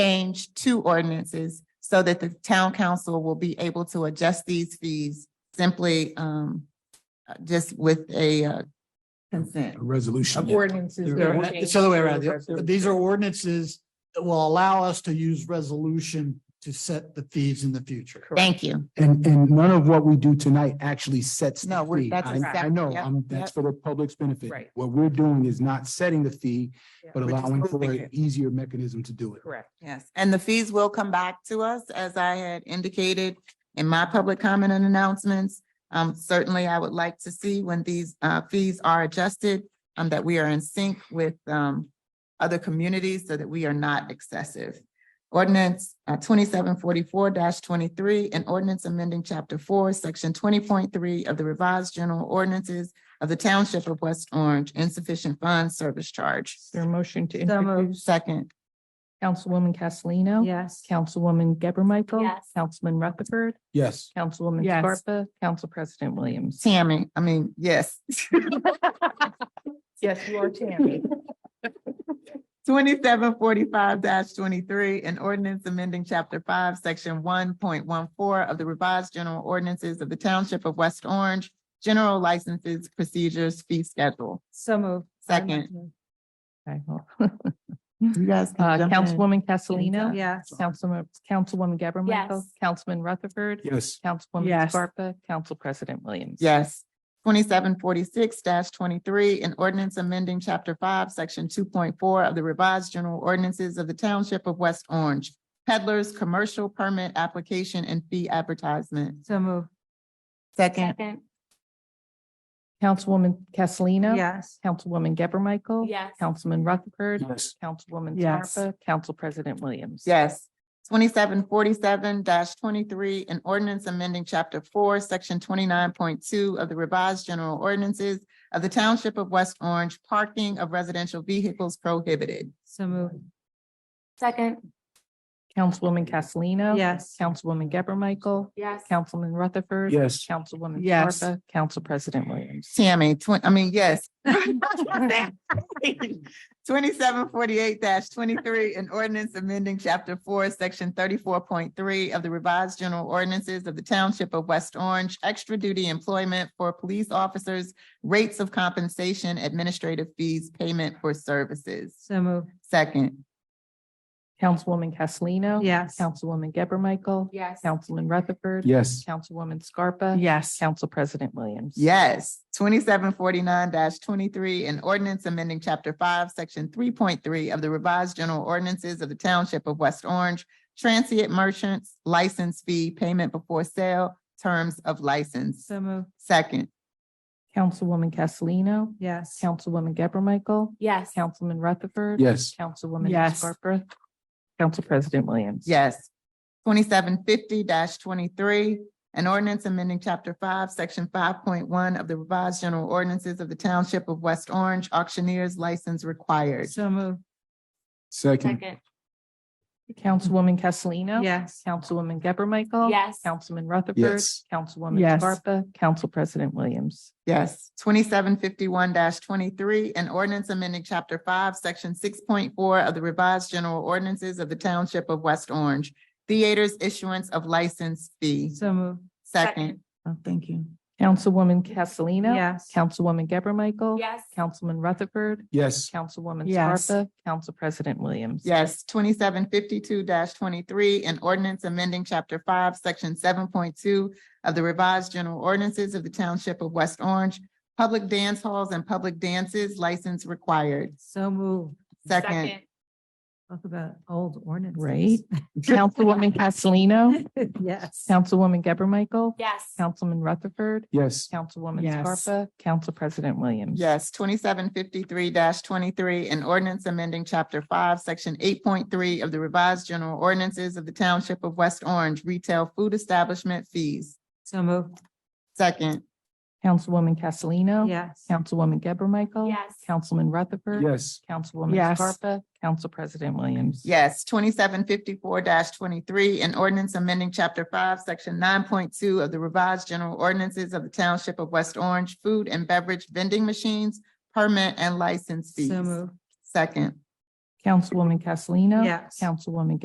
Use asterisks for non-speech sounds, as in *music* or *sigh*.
change two ordinances so that the town council will be able to adjust these fees simply um uh, just with a uh, consent. a resolution. Of ordinances. that They're- are It's the other way around. changed. The- These are ordinances that will allow us to use resolution to set the fees in the future. Thank you. And, and none of what we do tonight actually sets No, the we're- fee. that's I- exact- I know, yep, um, that's yep. for the public's benefit. Right. What we're doing is not setting the fee, Yeah. but Which is allowing for totally an fair. easier mechanism to do it. Correct. Yes, and the fees will come back to us, as I had indicated in my public comment and announcements. Um, certainly, I would like to see when these uh fees are adjusted, um, that we are in sync with um other communities so that we are not excessive. Ordinance uh, twenty-seven forty-four twenty-three, an ordinance amending chapter four, section twenty point three of the revised general ordinances of the township of West Orange, insufficient funds service charge. Is there a motion to So moved. introduce Second, Councilwoman Castellino? Yes. Councilwoman Geber Michael? Yes. Councilman Rutherford? Yes. Councilwoman Yes. Scarpa? Council President Williams? Tammy, I mean, yes. Yes, you are Tammy. Twenty-seven forty-five twenty-three, an ordinance amending chapter five, section one point one four of the revised general ordinances of the township of West Orange, general licenses, procedures, fee schedule. So moved. Second, *laughs* Okay, well, you guys uh, can jump in. Councilwoman Castellino? Yes. Councilwoman, Councilwoman Geber Michael? Yes. Councilman Rutherford? Yes. Councilwoman Yes. Scarpa? Council President Williams? Yes. Twenty-seven forty-six twenty-three, an ordinance amending chapter five, section two point four of the revised general ordinances of the township of West Orange, peddlers, commercial permit application and fee advertisement. So moved. Second, Councilwoman Castellino? Yes. Councilwoman Geber Michael? Councilman Rutherford? Yes. Councilwoman Yes. Scarpa? Council President Williams? Yes. Twenty-seven forty-seven twenty-three, an ordinance amending chapter four, section twenty-nine point two of the revised general ordinances of the township of West Orange, parking of residential vehicles prohibited. So moved. Second. Councilwoman Castellino? Yes. Councilwoman Geber Michael? Yes. Councilman Rutherford? Yes. Councilwoman Yes. Scarpa? Council President Williams? Tammy, twen- I mean, yes. Twenty-seven forty-eight twenty-three, an ordinance amending chapter four, section thirty-four point three of the revised general ordinances of the township of West Orange, extra duty employment for police officers, rates of compensation, administrative fees, payment for services. So moved. Second, Councilwoman Castellino? Yes. Councilwoman Geber Michael? Yes. Councilman Rutherford? Yes. Councilwoman Scarpa? Yes. Council President Williams? yes. Twenty-seven forty-nine twenty-three, an ordinance amending chapter five, section three point three of the revised general ordinances of the township of West Orange, transient merchants, license fee, payment before sale, terms of license. So moved. Second, Councilwoman Castellino? Yes. Councilwoman Geber Michael? Yes. Councilman Rutherford? Yes. Councilwoman Yes. Scarpa? Council President Williams? yes. Twenty-seven fifty twenty-three, an ordinance amending chapter five, section five point one of the revised general ordinances of the township of West Orange, auctioneer's license required. So moved. Second. Councilwoman Castellino? Yes. Councilwoman Geber Michael? Yes. Councilman Rutherford? Yes. Councilwoman Yes. Scarpa? Council President Williams? Yes, twenty-seven fifty-one twenty-three, an ordinance amending chapter five, section six point four of the revised general ordinances of the township of West Orange. Theaters issuance of license fee. So moved. Second. Oh, thank you. Councilwoman Castellino? Yes. Councilwoman Geber Michael? Yes. Councilman Rutherford? Yes. Councilwoman Yes. Scarpa? Council President Williams? *laughs* Yes, twenty-seven fifty-two twenty-three, an ordinance amending chapter five, section seven point two of the revised general ordinances of the township of West Orange. Public dance halls and public dances license required. So moved. Second. Talk about old ordinances. Right. Councilwoman Castellino? *laughs* Yes. Councilwoman Geber Michael? Yes. Councilman Rutherford? Yes. Councilwoman Yes. Scarpa? Council President Williams? Yes, twenty-seven fifty-three twenty-three, an ordinance amending chapter five, section eight point three of the revised general ordinances of the township of West Orange, retail food establishment fees. So moved. Second, Councilwoman Castellino? Yes. Councilwoman Geber Michael? Yes. Councilman Rutherford? Yes. Councilwoman Yes. Scarpa? Council President Williams? yes, twenty-seven fifty-four twenty-three, an ordinance amending chapter five, section nine point two of the revised general ordinances of the township of West Orange, food and beverage vending machines, permit and license fees. So moved. Second. Councilwoman Castellino? Yes. Councilwoman